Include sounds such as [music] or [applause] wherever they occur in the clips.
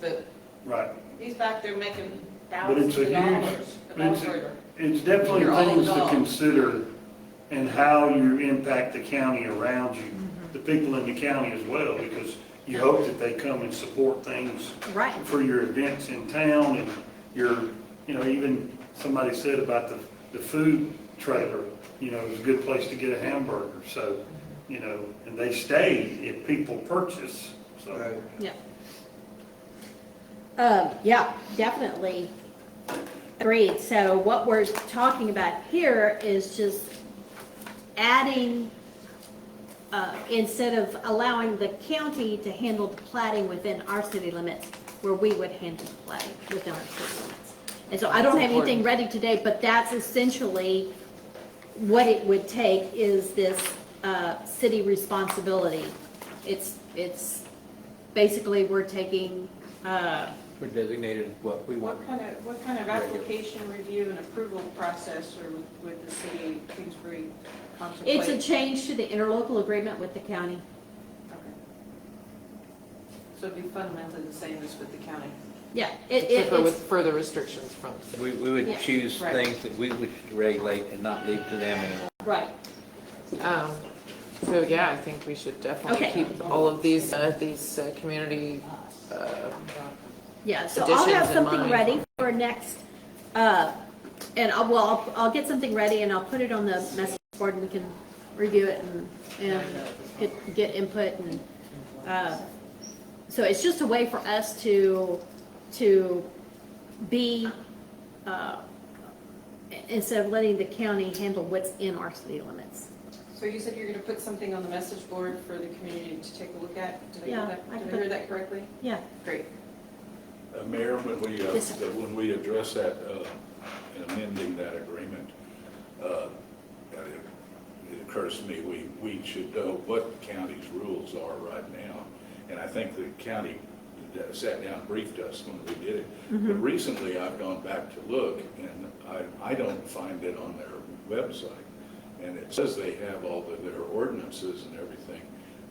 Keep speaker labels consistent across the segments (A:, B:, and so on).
A: But
B: Right.
A: he's back there making
B: But it's
A: thousands
B: a
A: of
B: huge,
A: dollars.
B: but it's,
A: over.
B: it's definitely
A: You're all
B: things to
A: involved.
B: consider and how you impact the county around you,
A: Mm-hmm.
B: the people in the county as well, because you hope that they come and support things
C: Right.
B: for your events in town and your, you know, even somebody said about the, the food trailer, you know, it's a good place to get a hamburger, so, you know, and they stay if people purchase, so.
C: Yeah. Um, yeah, definitely. Agreed. So what we're talking about here is just adding, uh, instead of allowing the county to handle the plating within our city limits, where we would handle the plating within our city limits. And so I don't have anything ready today, but that's essentially what it would take is this, uh, city responsibility. It's, it's basically, we're taking, uh,
D: We're designated what we want.
E: What kind of, what kind of application review and approval process or would- would the city of Kingsbury contemplate?
C: it's a change to the interlocal agreement with the county.
E: Okay. So it'd be fundamentally the same as with the county?
C: Yeah, it,
A: Except
C: it,
A: for with
C: it's,
A: further restrictions from.
D: We, we would
C: Yeah.
D: choose
E: Right.
D: things that we wish to regulate and not leave to them anymore.
C: right,
F: Um, So, yeah, I think we should definitely
C: Okay.
F: keep all of these, uh, these uh, community, uh,
C: yeah, so I'll
F: Additions
C: have
F: in
C: something
F: mind.
C: ready for next, uh, and I'll, well, I'll, I'll get something ready and I'll put it on the message board and we can review it and, and get, get input and, uh, so it's just a way for us to, to be, uh, i- instead of letting the county handle what's in our city limits.
E: So you said you're going to put something on the message board for the community to take a look at? Did I
C: Yeah,
E: hear that,
C: I
E: did I
C: put-
E: hear that correctly?
C: Yeah,
E: Great.
G: Uh, Mayor, when we, uh,
C: Yes, sir.
G: that when we address that, uh, and amending that agreement, uh, and it it occurs to me, we, we should know what county's rules are right now. And I think the county that sat down, and briefed us when we did it. But recently, I've gone back to look, and I, I don't find it on their website. And it says they have all of their ordinances and everything.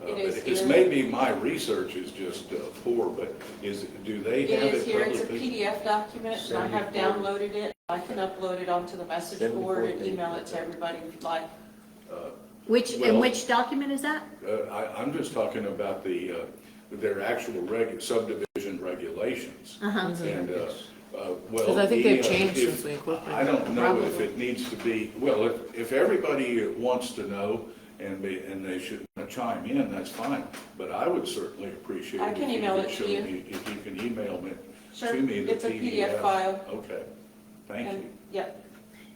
G: Uh,
E: It
G: but
E: is
G: It's
E: here.
G: maybe my research is just uh, poor, but is, do they
E: It
G: have it
E: is here, it's a
G: publicly?
E: PDF document, and I have downloaded it. I can upload it onto the message
D: Then before
E: board and
D: they-
E: email it to everybody if you'd like.
C: which, and
G: Well-
C: which document is that?
G: Uh, I, I'm just talking about the, uh, their actual reg, subdivision regulations. And, uh, uh, well.
F: 'Cause Uh-huh. I think
G: the,
F: they've
G: uh,
F: changed
G: if-
F: since we incorporated
G: I don't know if
F: probably.
G: it needs to be, well, if, if everybody wants to know and be, and they should chime in, that's fine. But I would certainly appreciate.
E: I
G: if
E: can
G: you
E: email
G: could
E: it to
G: show
E: you.
G: me- If you can email me,
E: Sure.
G: to me the PDF.
E: It's a PDF file.
G: Okay, thank you.
E: And, yeah,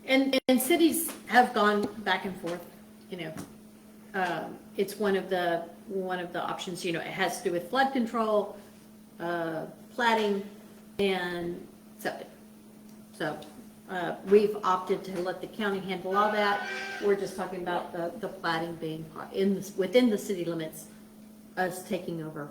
C: And, and cities have gone back and forth, you know. Um, It's one of the, one of the options, you know, it has to do with flood control, uh, plating, and septic. So uh, we've opted to let the county handle all that. We're just talking about the, the plating being part- in, this- within the city limits, us taking over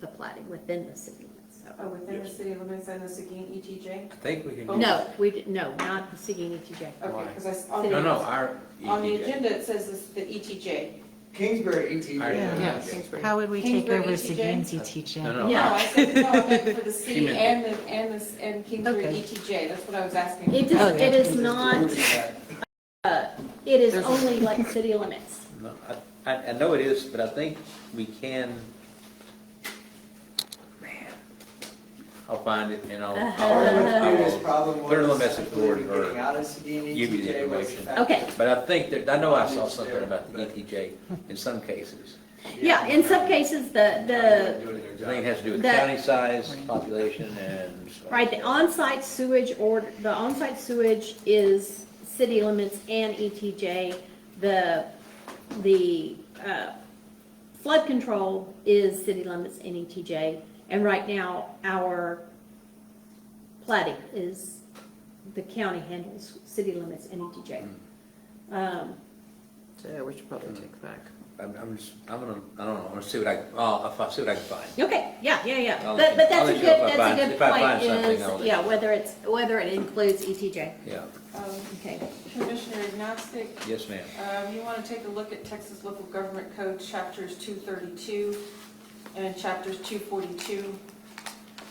C: the plating within the city limits, so.
E: Oh, within the city limits and the Seguin E ETJ?
D: I think we can.
C: No, we, didn't- no, not the Seguin ETJ.
E: Okay, because I. s- on
D: No,
E: the-
D: no, E our.
E: On the
D: EDJ.
E: agenda, it says this- the E ETJ.
H: Kingsbury E
D: Our
H: ETJ.
D: EDJ.
F: yeah, Kingsbury.
I: How would we take
E: Kingsbury
I: over
E: ETJ?
I: Seguin's E teaching?
D: No, no.
E: No,
D: our-
E: I said, no, I meant for the
D: She
E: C
D: meant-
E: and the, and the, s- and Kingsbury
I: Okay.
E: ETJ, that's what I was asking.
C: It is,
I: yeah.
C: it is not, uh, it is only like city limits.
D: no, I- I, I know it is, but I think we can. Man, I'll find it and I'll,
E: Uh-huh.
H: Part of
D: I'll,
E: [laughs]
H: what the biggest problem was.
D: Put it on the message board or
H: Getting out of Seguin
D: give you the
H: ETJ was the
D: information.
H: fact
C: Okay,
D: but I think that, I know I saw something about the ETJ in some cases.
H: that-
C: yeah, in some cases, the, the,
H: Doing their
D: I
H: job.
D: think it has to do with
C: That-
D: county size, population and. stuff.
C: right, the on-site sewage or, the on-site sewage is city limits and ETJ. The, the, uh, flood control is city limits and ETJ. And right now, our plating is, the county handles city limits and
D: Mm,
C: ETJ. Um,
F: Yeah, we should probably uh, take back.
D: I'm, I'm just, I'm gonna, I don't know, I'm gonna see what I, I'll, I'll see what I can find.
C: Okay, yeah, yeah, yeah,
D: I'll
C: but,
D: let
C: but
D: you- I'll
C: that's
D: let
C: a
D: you
C: good,
D: know if I
C: that's a
D: find-
C: good
D: if I find
C: point
D: something, I'll let
C: is,
D: you
C: yeah, whether it's, whether it includes ETJ,
D: Yeah,
E: Um,
C: okay.
E: Commissioner Agnostic,
D: yes, ma'am.
E: um, you want to take a look at Texas Local Government Code, chapters 232 and chapters 242,